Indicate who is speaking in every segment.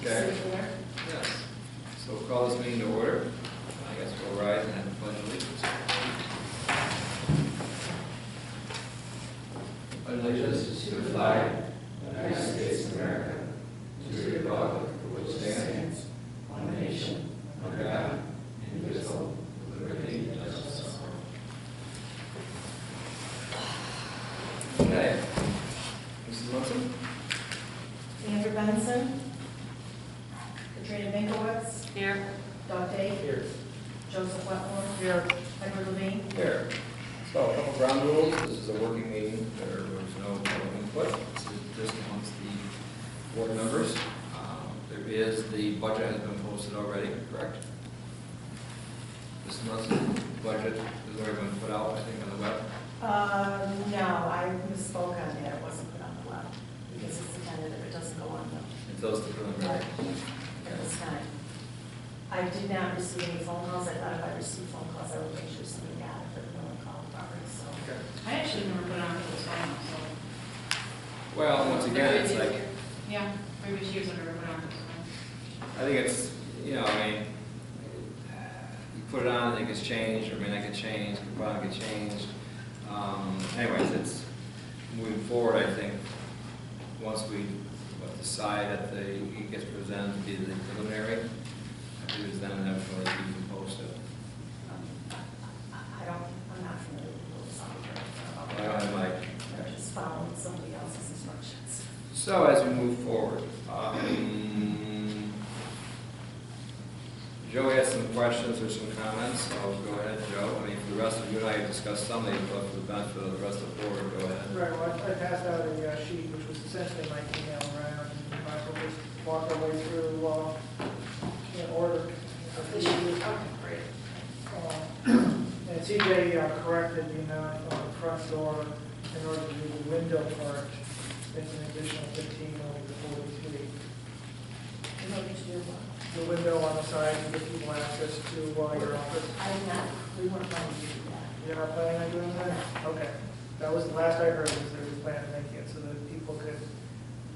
Speaker 1: Okay.
Speaker 2: Circular.
Speaker 1: Yes. So we'll call this meeting to order. I guess we'll rise and have a pledge of allegiance.
Speaker 3: allegiance to the flag of the United States of America, to the republic for which it stands, one nation, under God, indivisible, with liberty and justice for all.
Speaker 1: Okay. Mrs. Munson?
Speaker 2: Andrew Benson. Katrina Binkowitz.
Speaker 4: Here.
Speaker 2: Doug Day. Here. Joseph Wetmore. Here. Edward Levine.
Speaker 1: Here. So a couple ground rules. This is a working meeting. There was no public input. This is just amongst the board members. Um, There is, the budget has been posted already, correct? Mrs. Munson, budget has already been put out, I think, on the web.
Speaker 2: Uh, no, I misspoke on that, it wasn't put on the web, because it's intended that it doesn't go on the,
Speaker 1: It's those the preliminary.
Speaker 2: at this time. I did not receive any phone calls, I thought if I received phone calls, I would make sure somebody got it, but no one called Robert, so.
Speaker 1: Okay.
Speaker 4: I actually never put on for this one, so.
Speaker 1: Well, once again, it's like,
Speaker 4: Yeah, previous years I never put on for this one.
Speaker 1: I think it's, you know, I mean, you put it on, it gets changed, or I mean, I get changed, the product gets changed. Um, anyways, it's moving forward, I think, once we what, decide that the, it gets presented to be the preliminary, I think it's then inevitably you can post it.
Speaker 2: um, I don't, I'm not familiar with the rules, I'm
Speaker 1: I don't have like,
Speaker 2: I'm just following somebody else's instructions.
Speaker 1: so as we move forward, um, Joey has some questions or some comments, so go ahead, Joe. I mean, for the rest of you and I have discussed some of these, but for the benefit of the rest of the board, go ahead.
Speaker 5: Right, well, I I passed out a uh, sheet, which was essentially my email around, and Michael just walked our way through, uh, in order.
Speaker 2: great.
Speaker 5: Um, And CJ uh, corrected the amount on the front door in order to do the window part, it's an additional fifteen over the forty-three.
Speaker 2: You want me to do what?
Speaker 5: The window on the side to give people access to uh, your office.
Speaker 2: I did not, we weren't planning to do that.
Speaker 5: You're not planning on doing that? Okay. That was the last I heard, was they were planning on making it so that people could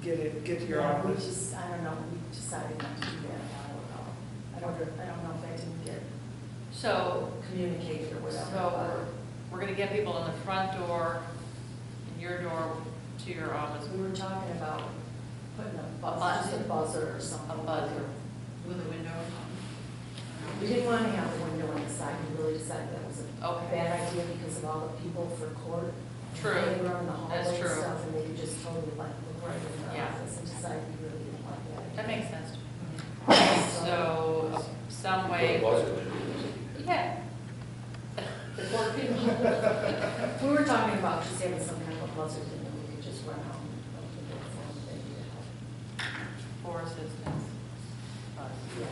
Speaker 5: get it, get to your
Speaker 2: Yeah, We
Speaker 5: office.
Speaker 2: just, I don't know, we decided not to do that an hour ago. I don't, I don't know if that didn't get
Speaker 4: So,
Speaker 2: communicated or whatever.
Speaker 4: so we're, we're gonna get people in the front door, and your door to your office,
Speaker 2: but We were talking about putting a buzzer, just a buzzer or something.
Speaker 4: a buzzer with a window or something.
Speaker 2: We didn't want to have a window on the side, we really decided that was a
Speaker 4: Okay.
Speaker 2: bad idea because of all the people for court.
Speaker 4: True.
Speaker 2: They were on the
Speaker 4: That's
Speaker 2: hallway and
Speaker 4: true.
Speaker 2: stuff, and they could just totally like, look right in the
Speaker 4: Yeah.
Speaker 2: office and decide we really didn't want that.
Speaker 4: That makes sense to me.
Speaker 2: So,
Speaker 4: So, some way, yeah,
Speaker 2: The court people. We were talking about just having some kind of a buzzer, thing that we could just run out and open the door for them, they could help.
Speaker 4: for assistance.
Speaker 2: Yeah.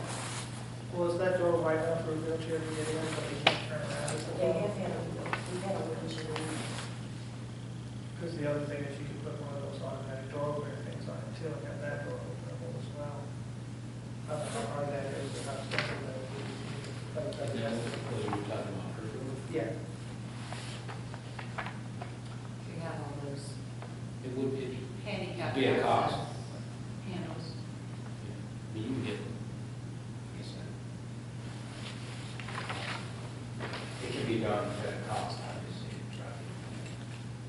Speaker 5: Well, is that door wide enough for a wheelchair to get in, but they can't turn around? Is
Speaker 2: They
Speaker 5: it-
Speaker 2: have had a, we had a wheelchair.
Speaker 5: Because the other thing is you could put one of those automatic doorway things on it too, and have that door openable as well. I don't know how hard that is, but how special that would be. But it's like- Yeah,
Speaker 4: We have all those
Speaker 3: It would be,
Speaker 4: handicap.
Speaker 3: Be a cost.
Speaker 4: Handles.
Speaker 3: you can get, it can be done at a cost, obviously, you try to,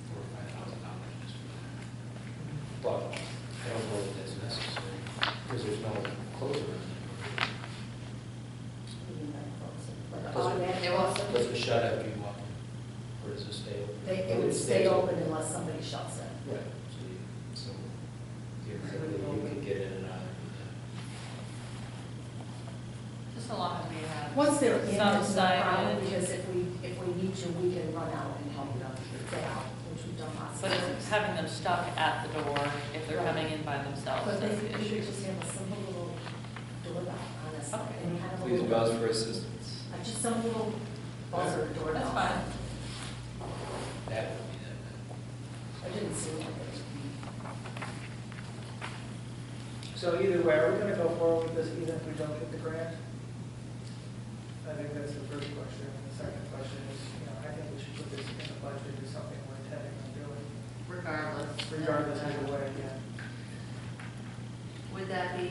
Speaker 3: four or five thousand dollars just for that. But I don't know if that's necessary, because there's no closer in there.
Speaker 2: Like
Speaker 3: Does it-
Speaker 2: automatic
Speaker 4: It was-
Speaker 2: buzzer.
Speaker 3: Does it shut after you walk in, or does it stay open?
Speaker 2: They, it would stay open unless somebody shuts it.
Speaker 3: Right, so you, so theoretically, you could get in and out.
Speaker 4: Just a lot of we have.
Speaker 2: Once they're in,
Speaker 4: Some
Speaker 2: it's not a problem,
Speaker 4: signage.
Speaker 2: because if we, if we need to, we can run out and help them get out, which we've done lots of
Speaker 4: But
Speaker 2: times.
Speaker 4: it's having them stuck at the door if they're coming in by themselves,
Speaker 2: But
Speaker 4: that's the
Speaker 2: basically,
Speaker 4: issue.
Speaker 2: you just have a simple little doorbell on us,
Speaker 4: Okay.
Speaker 2: and kind of a
Speaker 1: Please
Speaker 2: little.
Speaker 1: buzz for assistance.
Speaker 2: uh, Just some little buzzer doorbell.
Speaker 4: That's fine.
Speaker 3: That would be that.
Speaker 2: I didn't see one. but-
Speaker 5: so either way, are we gonna go forward with this even if we don't get the grant? I think that's the first question, and the second question is, you know, I think we should put this in the budget, is something we're intending on doing,
Speaker 4: Regardless.
Speaker 5: regardless of the way, yeah.
Speaker 4: Would that be